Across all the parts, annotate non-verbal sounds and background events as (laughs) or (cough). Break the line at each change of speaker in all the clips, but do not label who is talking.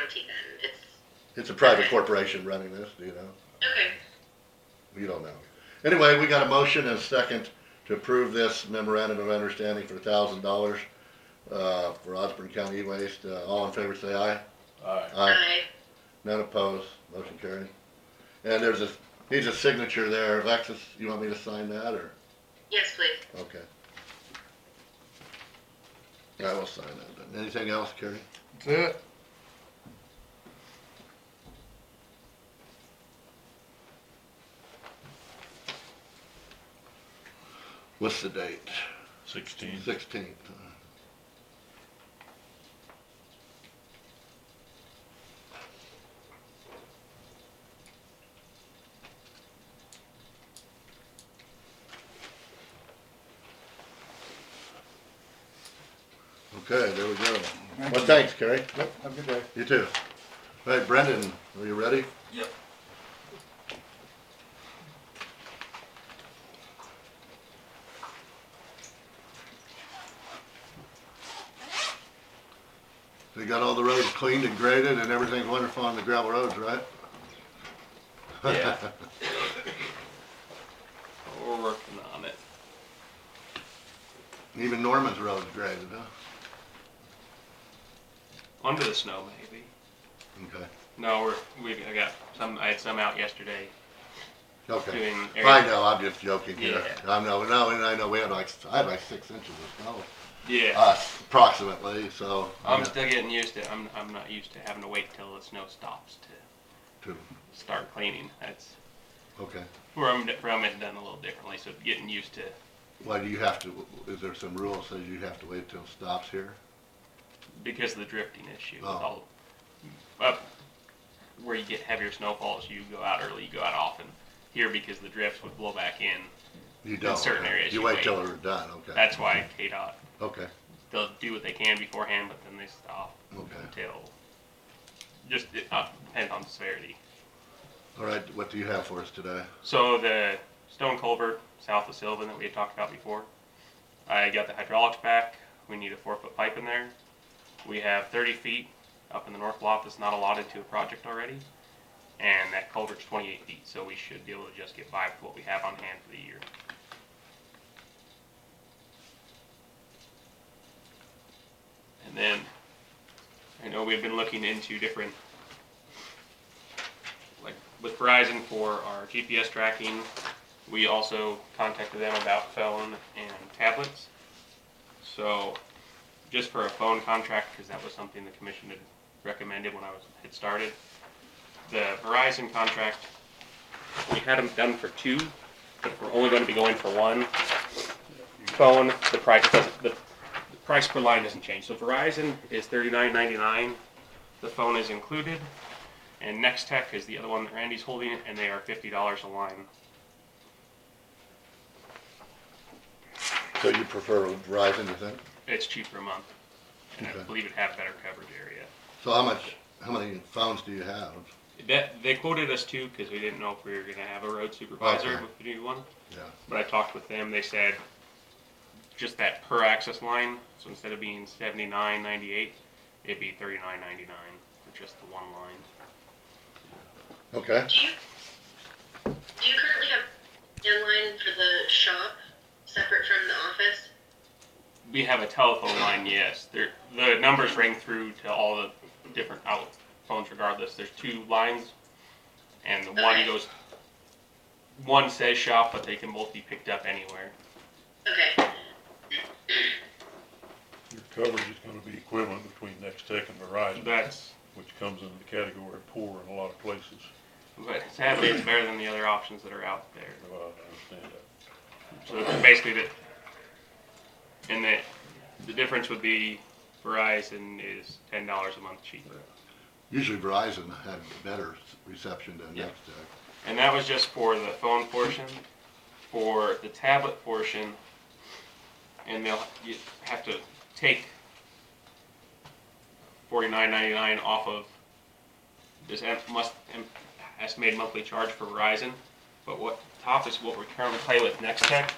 entity then? It's,
It's a private corporation running this, do you know?
okay,
You don't know. Anyway, we got a motion and a second to approve this memorandum of understanding for a thousand dollars, uh, for Osborne County E-Waste. Uh, all in favor, say aye.
Aye.
Uh.
aye.
None opposed, motion carried. And there's a, needs a signature there. Alexis, you want me to sign that, or?
Yes, please.
Okay. I will sign that. Anything else, Kerry?
That's it.
What's the date?
Sixteen.
Sixteenth. Okay, there we go.
Thank
Well,
you.
thanks, Kerry.
Yep, have a good day.
You too. All right, Brendan, are you ready?
Yep.
They got all the roads cleaned and graded and everything's wonderful on the gravel roads, right?
Yeah. We're working on it.
(laughs) Even Norman's road's graded, huh?
Under the snow, maybe.
Okay,
No, we're, we, I got some, I had some out yesterday
okay.
doing
I
area.
know, I'm just joking here.
Yeah.
I know, no, and I know we had like, I had like six inches of snow,
Yeah.
uh, approximately, so.
I'm
yeah,
still getting used to, I'm, I'm not used to having to wait till the snow stops to
two.
start cleaning. That's
Okay.
where I'm, where I'm at done a little differently, so getting used to,
Why do you have to, is there some rule that says you have to wait till it stops here?
because of the drifting issue with
Oh.
all, up where you get heavier snowfalls, you go out early, you go out often. Here, because the drifts would blow back in,
You don't.
certain
okay.
areas
You
you
wait
wait.
till they're done, okay.
that's why KDOT
Okay,
they'll do what they can beforehand, but then they stop
okay.
until just it uh, depends on severity.
All right, what do you have for us today?
So the stone culvert south of Sylvan that we had talked about before, I got the hydraulics back. We need a four foot pipe in there. We have 30 feet up in the north lot that's not allotted to a project already, and that culvert's 28 feet, so we should be able to just get by with what we have on hand for the year. And then I know we've been looking into different like with Verizon for our GPS tracking. We also contacted them about phone and tablets. So just for a phone contract, because that was something the commission had recommended when I was, had started. The Verizon contract, we had them done for two, but we're only going to be going for one. Phone, the price doesn't, the, the price per line doesn't change. So Verizon is thirty-nine ninety-nine. The phone is included. And Next Tech is the other one that Randy's holding, and they are fifty dollars a line.
So you prefer Verizon, you think?
It's cheaper a month, and I
Okay.
believe it have better coverage area.
So how much, how many phones do you have?
That they quoted us too because we didn't know if we were gonna have a road supervisor
Okay.
with the new one.
Yeah.
But I talked with them. They said just that per access line. So instead of being seventy nine ninety eight, it'd be thirty nine ninety nine for just the one line.
Okay.
Do you, do you currently have inline for the shop separate from the office?
We have a telephone line, yes. There, the numbers ring through to all the different out phones regardless. There's two lines, and the one
Okay.
goes, one says shop, but they can both be picked up anywhere.
Okay,
Your coverage is gonna be equivalent between Next Tech and Verizon,
That's,
which comes into the category of poor in a lot of places.
but sadly, it's better than the other options that are out there.
Well, I understand that.
So basically, the, and the, the difference would be Verizon is ten dollars a month cheaper.
Usually Verizon had better reception than
Yeah.
Nextech.
And that was just for the phone portion, for the tablet portion, and they'll you have to take forty nine ninety nine off of this em- must em- estimated monthly charge for Verizon. But what top is what we currently pay with Nextech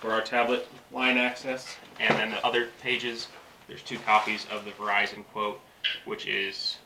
for our tablet line access, and then the other pages. There's two copies of the Verizon quote, which is